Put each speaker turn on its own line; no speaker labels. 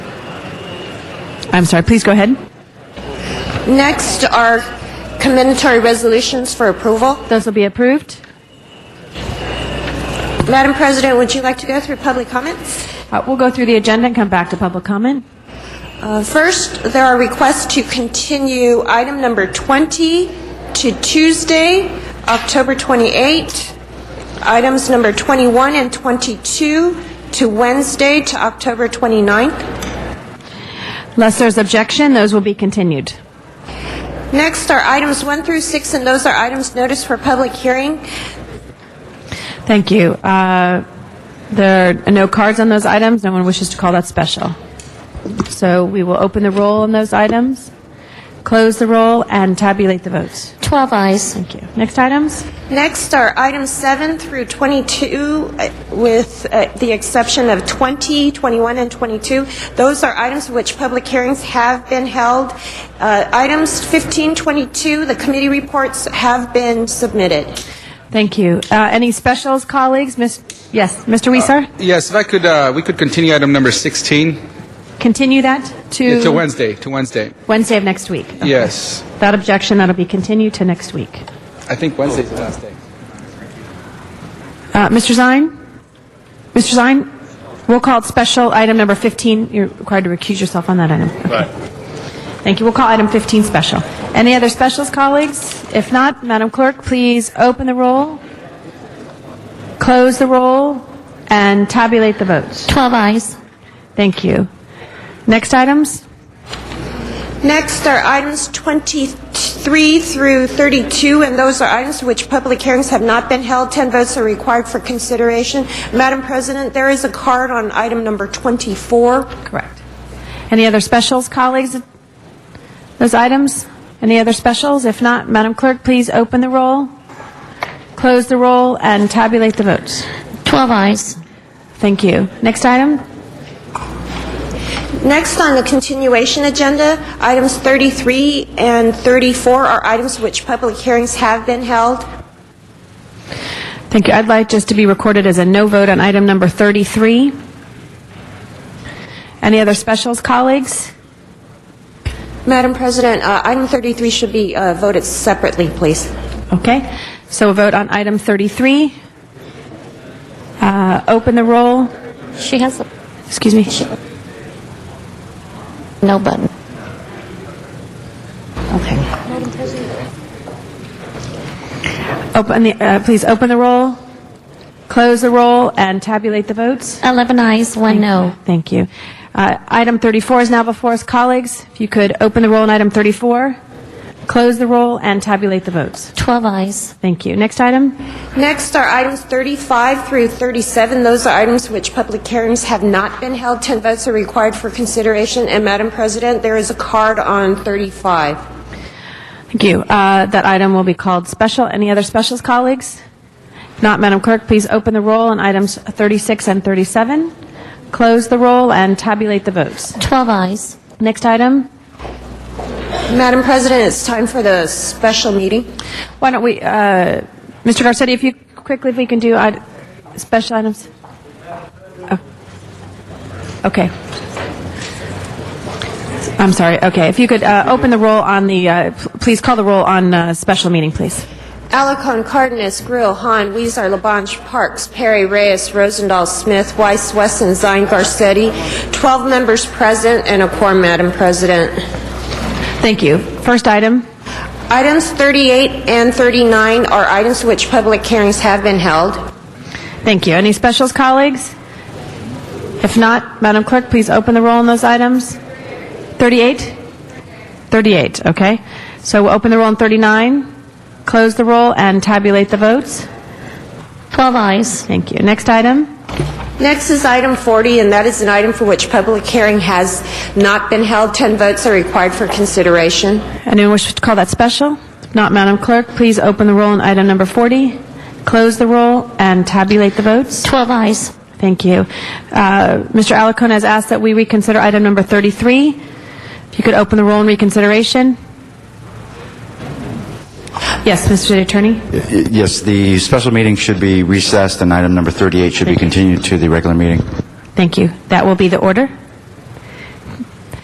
I'm sorry, please go ahead.
Next are commendatory resolutions for approval.
Those will be approved.
Madam President, would you like to go through public comments?
Uh, We'll go through the agenda and come back to public comment.
Uh, First, there are requests to continue item number 20 to Tuesday, October 28. Items number 21 and 22 to Wednesday to October 29th.
Unless there's objection, those will be continued.
Next are items 1 through 6, and those are items noticed for public hearing.
Thank you. Uh, There are no cards on those items. No one wishes to call that special. So we will open the roll on those items, close the roll, and tabulate the votes.
12 eyes.
Thank you. Next items?
Next are items 7 through 22, uh, with uh, the exception of 20, 21, and 22. Those are items which public hearings have been held. Uh, Items 15, 22, the committee reports have been submitted.
Thank you. Uh, Any specials, colleagues? Miss- Yes, Mr. Weiser?
Yes, if I could, uh, we could continue item number 16
Continue that to?
to Wednesday, to Wednesday.
Wednesday of next week.
Yes.
Without objection, that'll be continued to next week.
I think Wednesday's the last day.
Uh, Mr. Zine? Mr. Zine, we'll call it special item number 15. You're required to recuse yourself on that item. Right. Thank you. We'll call item 15 special. Any other specials, colleagues? If not, Madam Clerk, please open the roll, close the roll, and tabulate the votes.
12 eyes.
Thank you. Next items?
Next are items 23 through 32, and those are items which public hearings have not been held. 10 votes are required for consideration. Madam President, there is a card on item number 24.
Correct. Any other specials, colleagues? Those items? Any other specials? If not, Madam Clerk, please open the roll, close the roll, and tabulate the votes.
12 eyes.
Thank you. Next item?
Next on the continuation agenda, items 33 and 34 are items which public hearings have been held.
Thank you. I'd like just to be recorded as a no vote on item number 33. Any other specials, colleagues?
Madam President, uh, item 33 should be uh, voted separately, please.
Okay. So a vote on item 33. Uh, Open the roll.
She has a-
Excuse me.
no button.
Open the, uh, please open the roll, close the roll, and tabulate the votes.
11 eyes, one no.
Thank you. Uh, Item 34 is now before us. Colleagues, if you could open the roll on item 34, close the roll, and tabulate the votes.
12 eyes.
Thank you. Next item?
Next are items 35 through 37. Those are items which public hearings have not been held. 10 votes are required for consideration. And Madam President, there is a card on 35.
Thank you. Uh, That item will be called special. Any other specials, colleagues? If not, Madam Clerk, please open the roll on items 36 and 37, close the roll, and tabulate the votes.
12 eyes.
Next item?
Madam President, it's time for the special meeting.
Why don't we, uh, Mr. Garcetti, if you quickly, if we can do id- special items? Oh. Okay. I'm sorry. Okay. If you could uh, open the roll on the, uh, p- please call the roll on uh, special meeting, please.
Alarcon, Cardenas, Grill, Hahn, Weezer, Labange, Parks, Perry, Reyes, Rosendahl, Smith, Weiss, Wesson, Zine, Garcetti, 12 members present and a quorum, Madam President.
Thank you. First item.
Items 38 and 39 are items which public hearings have been held.
Thank you. Any specials, colleagues? If not, Madam Clerk, please open the roll on those items. 38? 38, okay. So we'll open the roll on 39, close the roll, and tabulate the votes.
12 eyes.
Thank you. Next item.
Next is item 40, and that is an item for which public hearing has not been held. 10 votes are required for consideration.
Anyone wish to call that special? If not, Madam Clerk, please open the roll on item number 40, close the roll, and tabulate the votes.
12 eyes.
Thank you. Uh, Mr. Alacon has asked that we reconsider item number 33. If you could open the roll on reconsideration. Yes, Mr. City Attorney?
Y- Yes, the special meeting should be recessed, and item number 38 should be continued to the regular meeting.
Thank you. That will be the order.